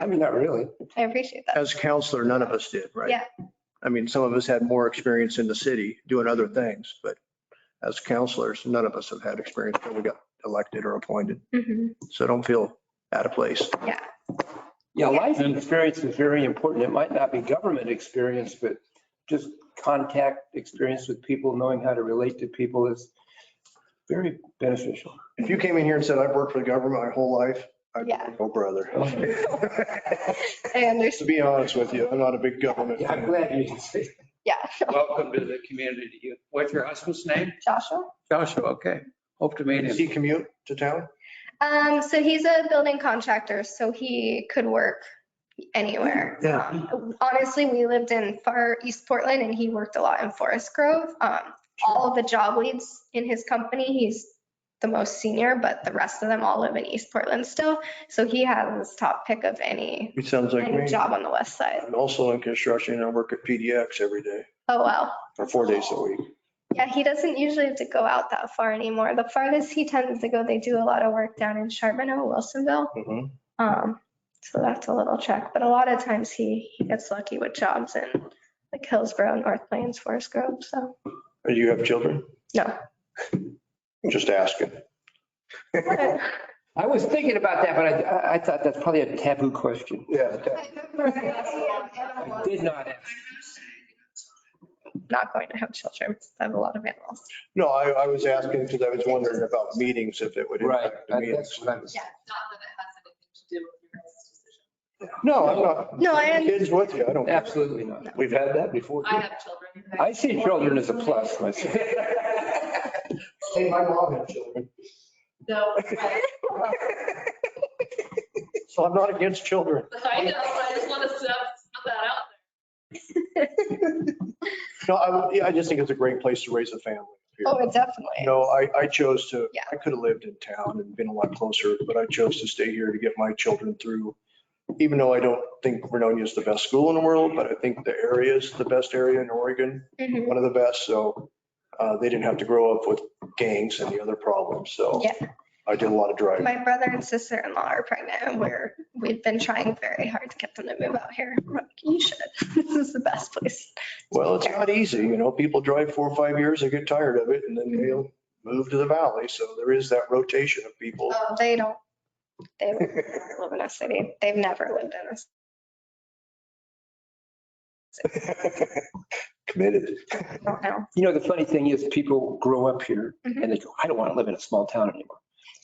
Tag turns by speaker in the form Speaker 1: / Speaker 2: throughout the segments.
Speaker 1: I mean, not really.
Speaker 2: I appreciate that.
Speaker 3: As counselor, none of us did, right?
Speaker 2: Yeah.
Speaker 3: I mean, some of us had more experience in the city doing other things, but as counselors, none of us have had experience until we got elected or appointed.
Speaker 2: Mhm.
Speaker 3: So don't feel out of place.
Speaker 1: Yeah, life experience is very important. It might not be government experience, but just contact experience with people, knowing how to relate to people is very beneficial.
Speaker 3: If you came in here and said, I've worked for the government my whole life, I'd be
Speaker 2: Yeah.
Speaker 3: like, oh, brother.
Speaker 2: I
Speaker 3: To
Speaker 2: understand.
Speaker 3: be honest with you, I'm not a big government.
Speaker 1: Yeah, I'm
Speaker 3: fan.
Speaker 1: glad you did say that.
Speaker 2: Yeah.
Speaker 4: Welcome to the community. What's your husband's name?
Speaker 2: Joshua?
Speaker 4: Joshua, okay. Hope to meet
Speaker 3: Does he
Speaker 4: him.
Speaker 3: commute to town?
Speaker 2: Um, so he's a building contractor, so he could work anywhere.
Speaker 3: Yeah.
Speaker 2: Um, Honestly, we lived in far East Portland and he worked a lot in Forest Grove. Um, all of the job leads in his company, he's the most senior, but the rest of them all live in East Portland still. So he has his top pick of any,
Speaker 3: It sounds like
Speaker 2: any
Speaker 3: me.
Speaker 2: job on the west side.
Speaker 3: I'm also in construction and I work at PDX every day
Speaker 2: Oh, wow.
Speaker 3: or four days a week.
Speaker 2: Yeah, he doesn't usually have to go out that far anymore. The farthest he tends to go, they do a lot of work down in Charbonneau, Wilsonville.
Speaker 3: Mhm.
Speaker 2: Um, so that's a little check, but a lot of times he, he gets lucky with jobs in like Hillsborough, North Plains, Forest Grove, so.
Speaker 3: Do you have children?
Speaker 2: No.
Speaker 3: I'm Just asking.
Speaker 2: I
Speaker 1: I was thinking about that, but I- I, I thought that's probably a taboo question.
Speaker 3: Yeah.
Speaker 1: I did not ask.
Speaker 2: Not going to have children, I have a lot of animals.
Speaker 3: No, I, I was asking because I was wondering about meetings, if it would
Speaker 1: Right,
Speaker 3: impact the
Speaker 1: that's
Speaker 3: meetings.
Speaker 1: what I was.
Speaker 5: not that it has anything to do with your guys' decision.
Speaker 3: No, I'm not.
Speaker 2: No, I am-
Speaker 3: Kids with you, I don't. care.
Speaker 1: Absolutely not.
Speaker 3: We've had that before.
Speaker 5: I have children.
Speaker 1: I see children as a plus myself.
Speaker 3: Hey, my mom had children.
Speaker 5: No, but-
Speaker 3: So I'm not against children.
Speaker 5: I know, but I just want to put that out
Speaker 3: No, I, would- yeah, I just think it's a great place to raise a family. here.
Speaker 2: Oh, it definitely.
Speaker 3: No, I, I chose to,
Speaker 2: Yeah.
Speaker 3: I could have lived in town and been a lot closer, but I chose to stay here to get my children through. Even though I don't think Vernonia is the best school in the world, but I think the area is the best area in Oregon,
Speaker 2: Mhm.
Speaker 3: one of the best. So uh, they didn't have to grow up with gangs and the other problems. So
Speaker 2: Yeah.
Speaker 3: I did a lot of driving.
Speaker 2: My brother and sister-in-law are pregnant and we're, we've been trying very hard to get them to move out here. We're like, You should, this is the best place.
Speaker 3: Well, it's not easy, you know, people drive four or five years, they get tired of it and then they'll move to the valley. So there is that rotation of people.
Speaker 2: Oh, they don't, they live in a city, they've never lived in a city.
Speaker 3: Committed.
Speaker 2: I don't know.
Speaker 1: You know, the funny thing is people grow up here and they go, I don't want to live in a small town anymore.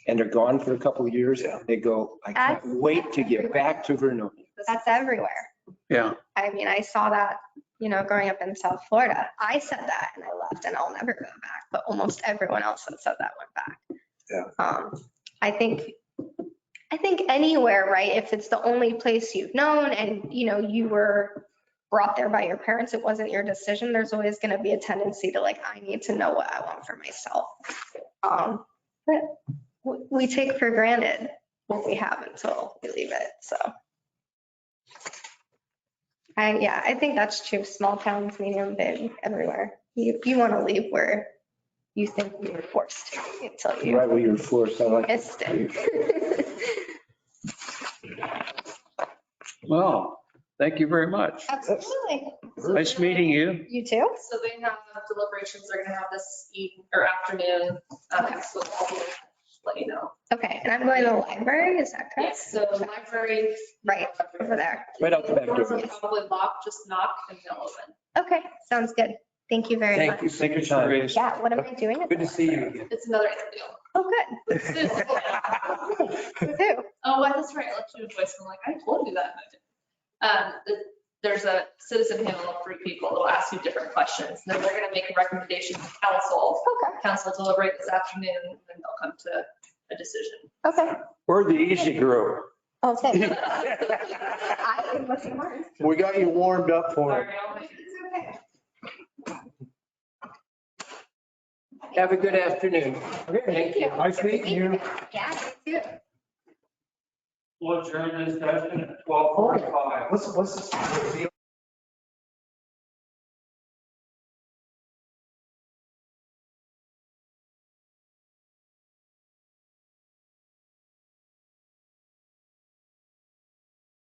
Speaker 1: And they're gone for a couple of years and they go, I can't
Speaker 2: That's-
Speaker 1: wait to get back to Vernonia.
Speaker 2: That's everywhere.
Speaker 4: Yeah.
Speaker 2: I mean, I saw that, you know, growing up in South Florida. I said that and I left and I'll never go back, but almost everyone else that said that went back.
Speaker 3: Yeah.
Speaker 2: Um, I think, I think anywhere, right? If it's the only place you've known and, you know, you were brought there by your parents, it wasn't your decision, there's always going to be a tendency to like, I need to know what I want for myself. Um, but we, we take for granted what we have until we leave it, so. I, yeah, I think that's true. Small towns, medium, big, everywhere. You, you want to leave where you think you were forced to until you
Speaker 1: Right where you're forced, I like.
Speaker 2: missed it.
Speaker 4: Well, thank you very much.
Speaker 2: Absolutely.
Speaker 4: Nice meeting you.
Speaker 2: You too?
Speaker 5: there. So they have uh, deliberations, they're going to have this evening or afternoon. um, so I'll Let you know.
Speaker 2: Okay, and I'm going to the library, is that correct?
Speaker 5: So library.
Speaker 2: Right, over there.
Speaker 1: Right out the back
Speaker 5: Doors
Speaker 1: door.
Speaker 5: are Probably locked, just knock and they'll open.
Speaker 2: Okay, sounds good. Thank you very much.
Speaker 1: Thank you for your time.
Speaker 4: Curious.
Speaker 2: Yeah, what am I doing? at
Speaker 1: Good
Speaker 2: the
Speaker 1: to see you again.
Speaker 5: It's another interview.
Speaker 2: Oh,
Speaker 5: Soon.
Speaker 2: good. Who?
Speaker 5: Oh, well, that's right. I left you a voicemail. Like, I told you that. and I didn't. Um, th- there's a citizen panel of three people that'll ask you different questions. Then they're gonna make a recommendation to council.
Speaker 2: Okay,
Speaker 5: Council will deliberate this afternoon, and then they'll come to a decision.
Speaker 2: okay.
Speaker 1: We're the easy group.
Speaker 2: Oh, thanks. I am looking forward.
Speaker 3: We got you warmed up for it.
Speaker 5: Sorry, I'll make-
Speaker 1: Have a good afternoon.
Speaker 2: Thank you.
Speaker 1: Nice meeting you.
Speaker 2: Yeah, you too.
Speaker 6: We'll adjourn this session at twelve forty-five.
Speaker 1: What's, what's?